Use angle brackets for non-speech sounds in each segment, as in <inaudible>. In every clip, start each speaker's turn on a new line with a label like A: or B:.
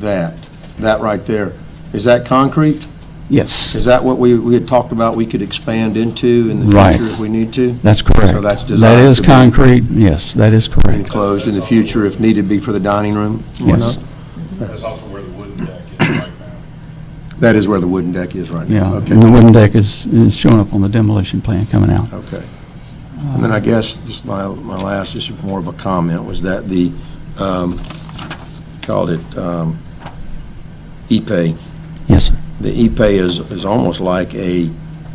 A: that, that right there, is that concrete?
B: Yes,
A: Is that what we, we had talked about we could expand into in the
B: Right.
A: future if we need to?
B: that's correct.
A: So that's designed
B: That is
A: to be-
B: concrete, yes, that is correct.
A: Enclosed in the future if needed be for the dining room? or
B: Yes.
A: not?
C: That's also where the wooden deck is right now.
A: That is where the wooden deck is right now?
B: Yeah,
A: Okay.
B: and the wooden deck is, is showing up on the demolition plan coming out.
A: Okay. And then I guess, just my, my last, this is more of a comment, was that the, um, called it, um, E-Pay.
B: Yes, sir.
A: The E-Pay is, is almost like a,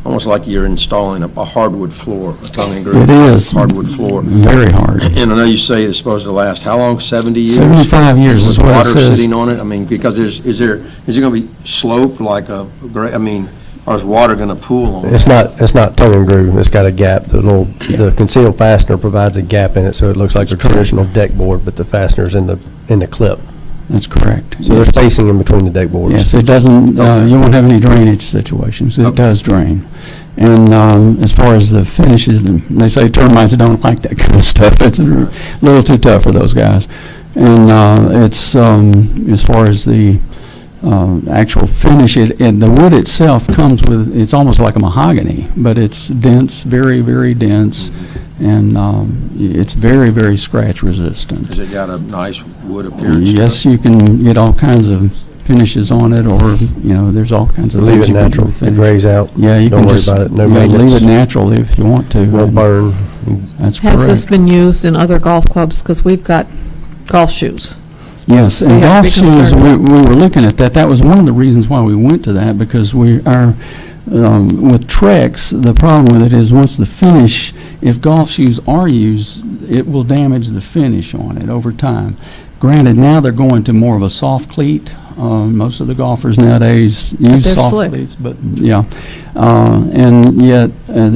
A: almost like you're installing a a hardwood floor, a tongue and groove.
B: It is.
A: Hardwood floor.
B: very hard.
A: And I know you say it's supposed to last, how long, 70 years?
B: 75 years is
A: With
B: what it
A: Water
B: says.
A: sitting on it, I mean, because there's, is there, is it going to be sloped like a, gra- I mean, or is water going to pool on it?
D: It's not, it's not tongue and groove, it's got a gap, the little, the concealed fastener provides a gap in it, so it looks like a traditional deck board, but the fastener's in the, in the clip.
B: That's correct.
D: So there's spacing in between the deck
B: Yes,
D: boards.
B: it doesn't, uh,
A: Okay.
B: you won't have any drainage situations. It
A: Okay.
B: does drain. And um, as far as the finishes, and they say termites don't like that <laughs> kind of stuff. It's a little too tough for those guys. And uh, it's, um, as far as the um, actual finish, it and the wood itself comes with, it's almost like a mahogany, but it's dense, very, very dense, and um, it's very, very scratch resistant.
A: Has it got a nice wood appearance? to it?
B: Yes, you can get all kinds of finishes on it, or, you know, there's all kinds of
D: Leave
B: things
D: it
B: you can do
D: natural,
B: with
D: it
B: it.
D: grays out,
B: Yeah, you
D: Don't
B: can
D: worry
B: just,
D: about it, no
B: yeah, leave
D: maintenance.
B: it natural if you want to.
D: won't
B: and
D: burn.
B: That's
E: Has this
B: correct.
E: been used in other golf clubs? Because we've got golf shoes.
B: Yes,
E: we
B: and
E: have
B: golf
E: to be
B: shoes,
E: concerned
B: we, we were looking at that, that was one of the reasons why we went to that, because we are, um, with Trex, the problem with it is, once the finish, if golf shoes are used, it will damage the finish on it over time. Granted, now they're going to more of a soft cleat. Um, most of the golfers nowadays use
E: they're
B: soft
E: slick.
B: cleats, but yeah. Uh, and yet, uh,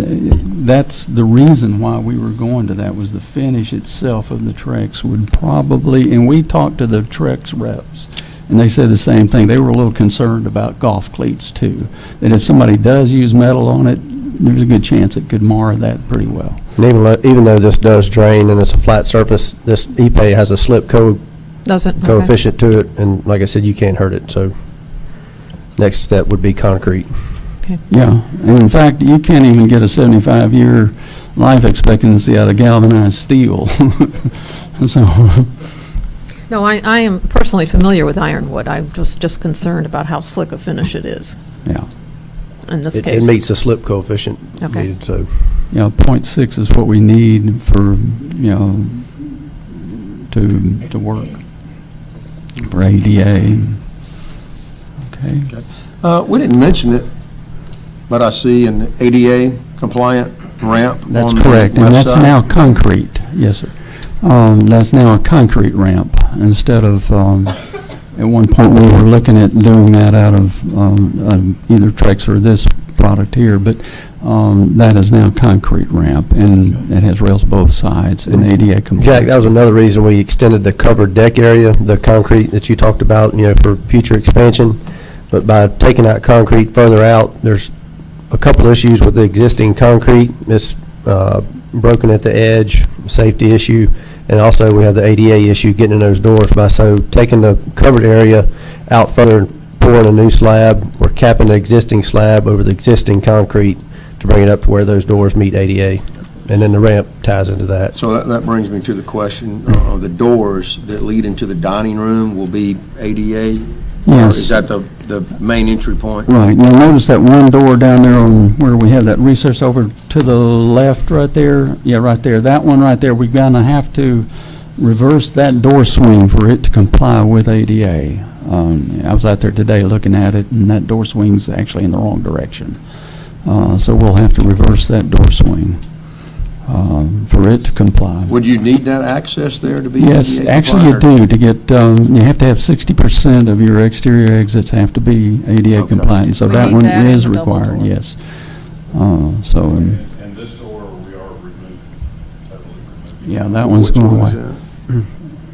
B: that's the reason why we were going to that was the finish itself of the Trex would probably. And we talked to the Trex reps, and they said the same thing. They were a little concerned about golf cleats too. That if somebody does use metal on it, there's a good chance it could mar that pretty well.
D: And even, though- even though this does drain and it's a flat surface, this E-Pay has a slip co-
E: Doesn't, okay.
D: coefficient to it, and like I said, you can't hurt it, so next step would be concrete.
B: Yeah, and in fact, you can't even get a 75-year life expectancy out of galvanized steel. <laughs> So,
E: No, I, I am personally familiar with ironwood. I'm just, just concerned about how slick a finish it is
B: yeah,
E: in this
D: It
E: case.
D: it meets the slip coefficient
E: Okay.
D: needed, so.
B: you know, .6 is what we need for, you know, to, to work for ADA. Okay,
A: Uh, we didn't mention it, but I see an ADA compliant ramp on the
B: that's correct, and
A: left
B: that's
A: side.
B: now concrete, yes, sir. Um, That's now a concrete ramp instead of, um, at one point, we were looking at doing that out of um, um, either Trex or this product here, but um, that is now concrete ramp, and it has rails both sides and ADA compliant.
D: Jack, that was another reason we extended the covered deck area, the concrete that you talked about, you know, for future expansion. But by taking out concrete further out, there's a couple issues with the existing concrete. It's uh, broken at the edge, safety issue, and also we have the ADA issue getting in those doors by, so taking the covered area out further and pouring a new slab, we're capping the existing slab over the existing concrete to bring it up to where those doors meet ADA. And then the ramp ties into that.
A: So that, that brings me to the question, uh, the doors that lead into the dining room will be ADA? Or
B: Yes.
A: Is that the, the main entry point?
B: Right, now notice that one door down there on where we have that recess over to the left right there, yeah, right there, that one right there, we're gonna have to reverse that door swing for it to comply with ADA. Um, I was out there today looking at it, and that door swing's actually in the wrong direction. Uh, so we'll have to reverse that door swing, um, for it to comply.
A: Would you need that access there to be ADA
B: Yes, actually you
A: compliant, or-
B: do, to get, um, you have to have sixty percent of your exterior exits have to be ADA
A: Okay.
B: compliant, so
E: We
B: that
E: need
B: one
E: that and
B: is
E: the double
B: required,
E: door.
B: yes. Uh, so, um,
C: And and this door, we are removing, totally removing.
B: yeah, that one's
A: Which
B: going
A: one is
B: away.
A: that?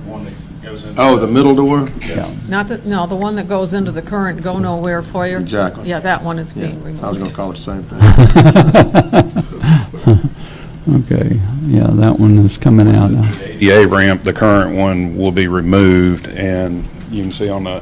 C: One that goes into.
A: Oh, the middle door?
C: Yeah.
E: Not that, no, the one that goes into the current go nowhere foyer.
A: Exactly.
E: Yeah, that one is
A: Yeah,
E: being removed.
A: I was gonna call it the same thing.
B: <laughs> Okay, yeah, that one is
C: Uh,
B: coming out now.
C: The ADA ramp, the current one will be removed, and you can see on the